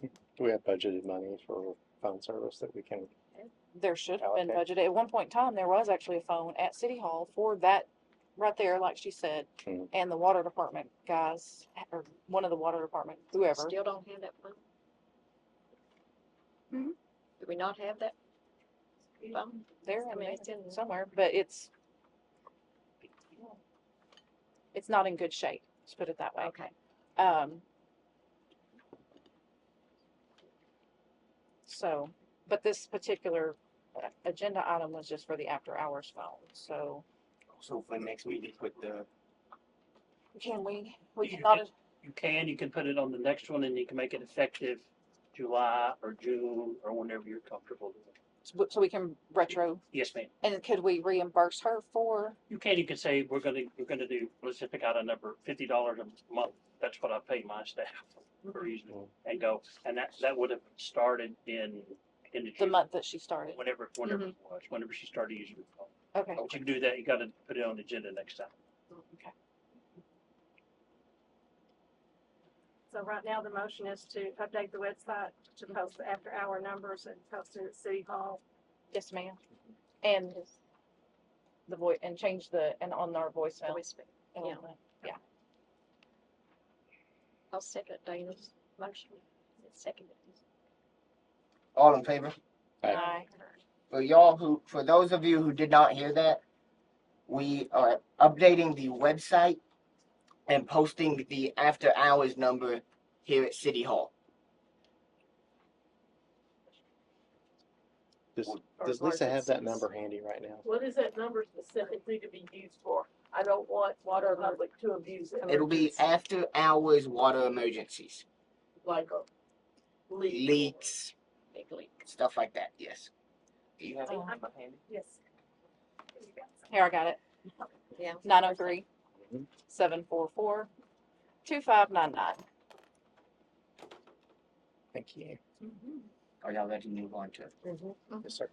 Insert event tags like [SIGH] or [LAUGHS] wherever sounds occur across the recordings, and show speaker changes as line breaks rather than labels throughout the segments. Do we have budgeted money for phone service that we can,
There should have been
Allocate.
budgeted. At one point in time, there was actually a phone at City Hall for that, right there, like she said.
Hmm.
And the water department guys, or one of the water department, whoever.
Still don't have that phone?
Hmm?
Do we not have that phone?
There,
I
I
mean,
mean,
it's in-
somewhere, but it's. It's not in good shape, let's put it that way.
Okay.
Um. So, but this particular uh, agenda item was just for the after hours phone, so
So for next week, you put the,
can we, we
You
cannot,
you can, you can put it on the next one and you can make it effective July or June or whenever you're comfortable. with it.
so we can retro,
Yes, ma'am.
and could we reimburse her for,
You can, you can say, we're gonna, we're gonna do, let's just pick out a number, fifty dollars a month. That's what I pay my staff for using it and go. And that, that would have started in, in the
the
June,
month that she started?
whenever, whenever it was, whenever she started using it.
Okay,
But you can do that. You gotta put it on the agenda next time.
So right now, the motion is to update the website to post the after-hour numbers and post it at City Hall.
yes, ma'am. And the voice, and change the, and on our voicemail.
Always been.
and all
yeah.
that.
I'll second Dana's motion. It's seconded.
all in favor?
Aye.
Aye.
For y'all who, for those of you who did not hear that, we are updating the website and posting the after hours number here at City Hall.
does,
or
does Lisa have that
emergencies.
number handy right now?
What is that number specifically to be used for? I don't want water public to abuse it.
It'll be after hours water emergencies,
Like uh, a leak.
leaks,
Big leak.
stuff like that, yes. Do you have
it?
Yes.
Here, I got it.
Yeah.
Nine oh three,
Mhm.
seven four four, two five nine nine.
Thank you.
Are y'all ready to move on to?
Mm-hmm.
Mm-hmm.
Yes, sir.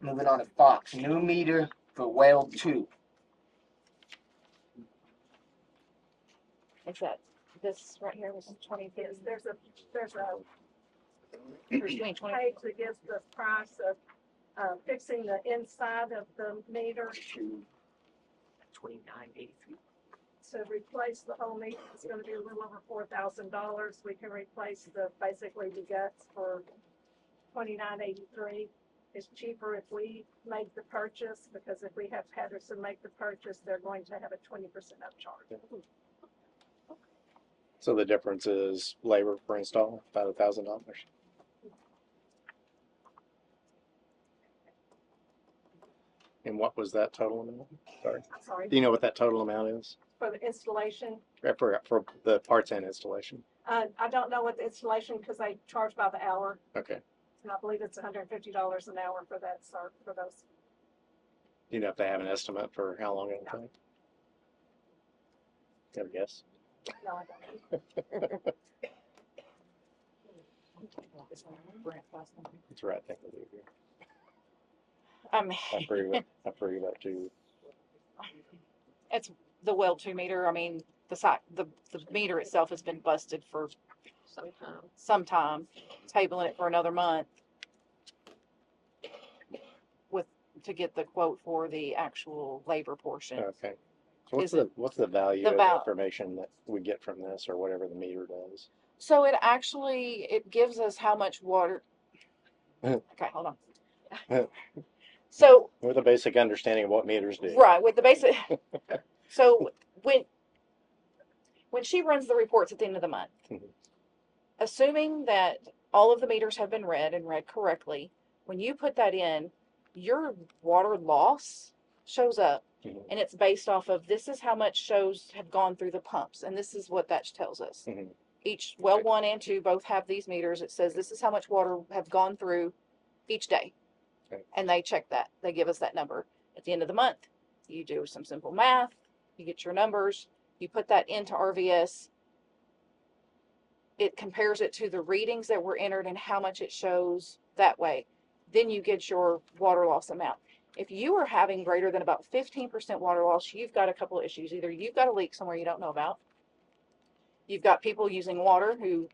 Moving on to Fox, new meter for well two.
Is that, this right here was twenty
Yes,
fifty,
there's a, there's a
twenty twenty,
page that gives the price of, uh, fixing the inside of the meter
Twenty-nine eighty-three.
to replace the whole meter. It's gonna be a little over four thousand dollars. We can replace the, basically the guts for twenty-nine eighty-three. It's cheaper if we make the purchase, because if we have Patterson make the purchase, they're going to have a twenty percent upcharge.
So the difference is labor per install, about a thousand dollars. And what was that total amount? Sorry.
I'm sorry,
Do you know what that total amount is?
for the installation.
Uh, For, for the parts and installation?
Uh, I don't know what the installation, because they charge by the hour,
Okay.
and I believe it's hundred and fifty dollars an hour for that, sir, for those.
Do you know if they have an estimate for how long it'll take? Have a guess?
No, I don't.
It's the right thing to do here.
um,
I agree
[LAUGHS]
with, I agree with that too.
it's the well two meter, I mean, the site, the, the meter itself has been busted for
Sometime.
some time, tabling it for another month. With, to get the quote for the actual labor portion.
Okay. So what's
Is
the, what's the value
the
of the
val-
information that we get from this or whatever the meter does?
So it actually, it gives us how much water. Okay, hold on. So,
With a basic understanding of what meters do.
right, with the basic, so when, when she runs the reports at the end of the month,
Mhm.
assuming that all of the meters have been read and read correctly, when you put that in, your water loss shows up
Mhm.
and it's based off of this is how much shows have gone through the pumps and this is what that tells us
Mhm.
each well
Okay.
one and two both have these meters it says this is how much water have gone through each day
Okay.
and they check that they give us that number at the end of the month you do some simple math you get your numbers you put that into rvs it compares it to the readings that were entered and how much it shows that way then you get your water loss amount if you are having greater than about 15% water loss, you've got a couple of issues. Either you've got a leak somewhere you don't know about, you've got people using water who